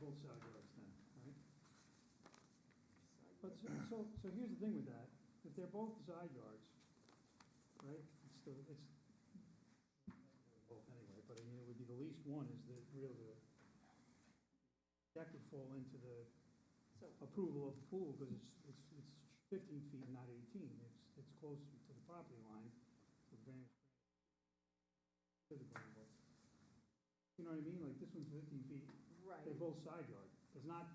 old side yards then, right? But so, so, so here's the thing with that, if they're both side yards, right, it's the, it's, well, anyway, but I mean, it would be the least one is the real, the, that could fall into the So, approval of the pool, because it's, it's, it's fifteen feet, not eighteen, it's, it's close to the property line, so the variance. to the ground level. You know what I mean, like this one's fifteen feet, right, they're both side yard, it's not,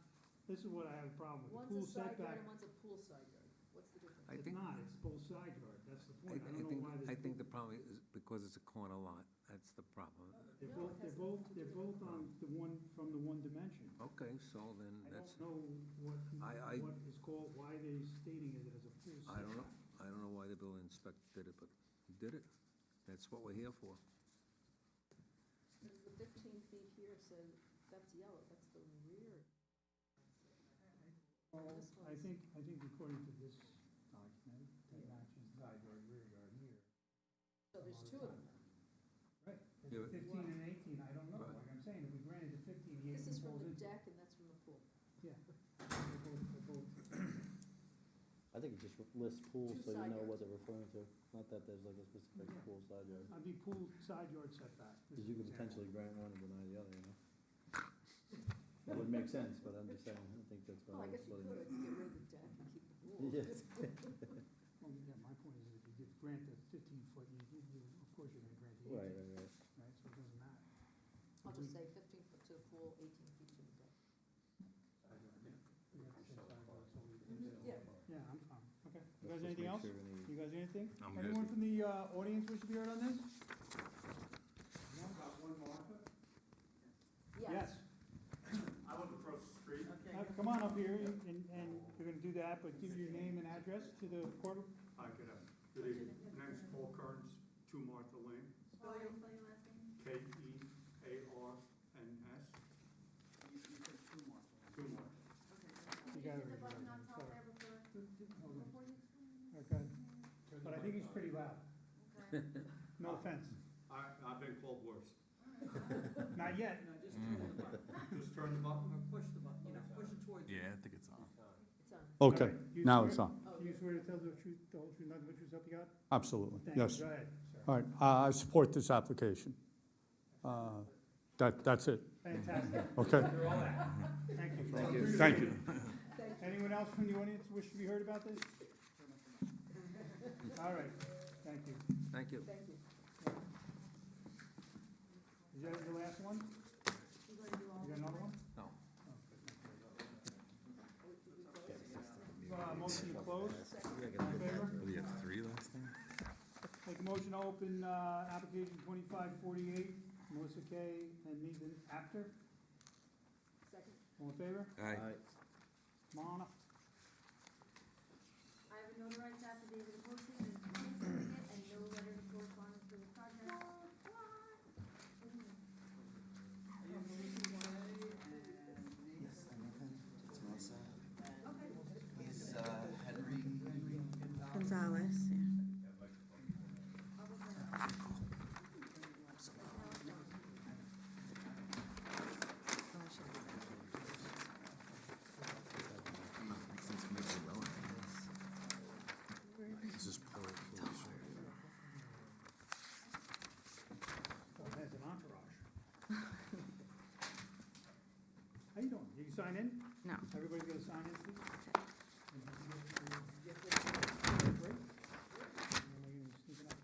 this is what I have a problem with, the pool one's a side yard setback. and one's a pool side yard, what's the difference? I It's think- not, it's both side yard, that's the I point, I I don't know why think, this. I think the problem is because it's a corner lot, that's the problem. They're No, it both, they're both, has nothing to they're do both with on the one, from the one dimension. Okay, so then I Mm, that's, don't know what, I- I- what is called, why they stating it as a pool I don't know, setback. I don't know why the building inspector did it, but he did it. That's what we're here for. Because the fifteen feet here says, that's yellow, that's the rear. Well, This I one's- think, I think according to this document, that matches side yard, rear yard here. So there's two of them. Right, Is it Yeah, but- fifteen and eighteen, I don't know, Right. like I'm saying, if we granted the fifteen, the This eighteen is from falls the into. deck and that's from the pool. Yeah, they're both, they're both. I think it just lists pools, Two so you side know what yards. they're referring to, not that there's like a Yeah. specific pool side yard. I'd be pool side yard setback. Because you could potentially grant one and deny the other, you know? It would make sense, but I'm just saying, I don't think Oh, that's I what I was guess you putting. could, get rid of the deck and keep the pool. Yes. Well, yeah, my point is if you did grant the fifteen foot, you, you- you, of course you're gonna grant the Right, eighteen, right, right. right, so it doesn't matter. I'll just say fifteen foot to the pool, eighteen feet to the deck. We have to say side yard, so we- Yeah. Yeah, I'm fine, okay. You Let's guys anything just make else? sure any- You guys anything? I'm good. Anyone from the, uh, audience wish to be heard on this? Yes, I live across the street. Uh, come on up here and, and- and you're gonna do that, but give your name and address to the court. Hi, good afternoon. Good evening. My name's Paul Kearns, two Martha Lane, Spell your, spell your last name? K E A R N S, two Martha. Okay. You You hit gotta the read button it, on top sorry. there before, Hold on. before you explain? Okay, but I think he's pretty loud, Okay. All no offense, I, I've been called worse. right. not yet. Just turn the button. Yeah, I think it's on. It's on. Okay, You now swear- it's on. Oh, Do you swear to tell the truth, the whole truth, nothing but the truth, so help you God? Absolutely, Thank you. yes. Go ahead, sir. All right, I I support this application. Uh, That, that's it, Fantastic. okay? You're all that. Thank you. Thank you. Thank you. Anyone else from the audience wish to be heard about this? All right, thank you. Thank you. Thank you. Is that the last one? You gonna do all You got of another one? No. Uh, motion to close, Yeah, I all gotta in get that. favor? What do you have, three last time? Make a motion to open, uh, application twenty-five forty-eight, Melissa Kay and Nathan Apter, Second, all in favor? Aye. All right. Come on up. I have a notarized affidavit of posting and certificate and no letter of correspondence for the project. Yes, I'm Nathan. It's Melissa. Okay. He's uh, Henry. Gonzalez, Oh, It has an entourage. How you doing? You sign in? No. Everybody gonna sign in, please? Break? Am I gonna sneak it up?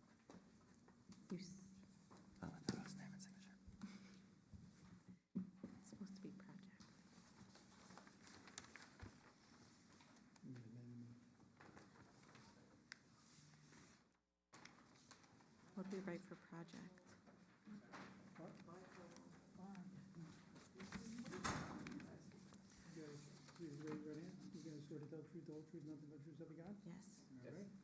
You're supposed to be project. What do you write for project? You guys, please raise your hand. You guys swear to tell the truth, the whole truth, nothing but the truth, so help you God? Yes. All right.